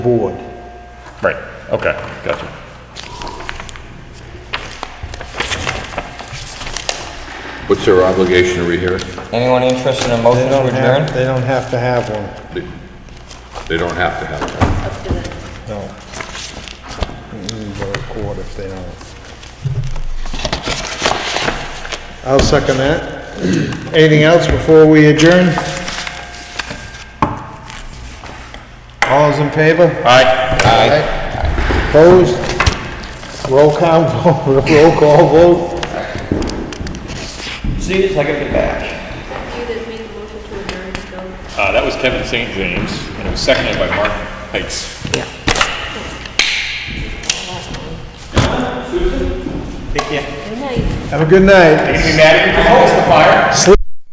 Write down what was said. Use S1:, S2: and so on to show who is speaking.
S1: board.
S2: Right, okay, gotcha.
S3: What's their obligation to rehear?
S4: Anyone interested in a
S1: They
S4: motion to
S1: don't have,
S4: adjourn?
S1: they don't have to have one.
S3: They they don't have to have that.
S1: No. We need to go to court if they don't. I'll second that. Anything else before we adjourn? All's in favor?
S2: Aye.
S1: Opposed? Roll call, vote- roll call vote?
S4: See, it's like a big bag.
S5: You that made the motion to adjourn, so.
S2: Uh, that was Kevin St. James, and it was seconded by Mark Pikes.
S5: Good night.
S1: Have a good night.
S2: Be mad at me for the fire.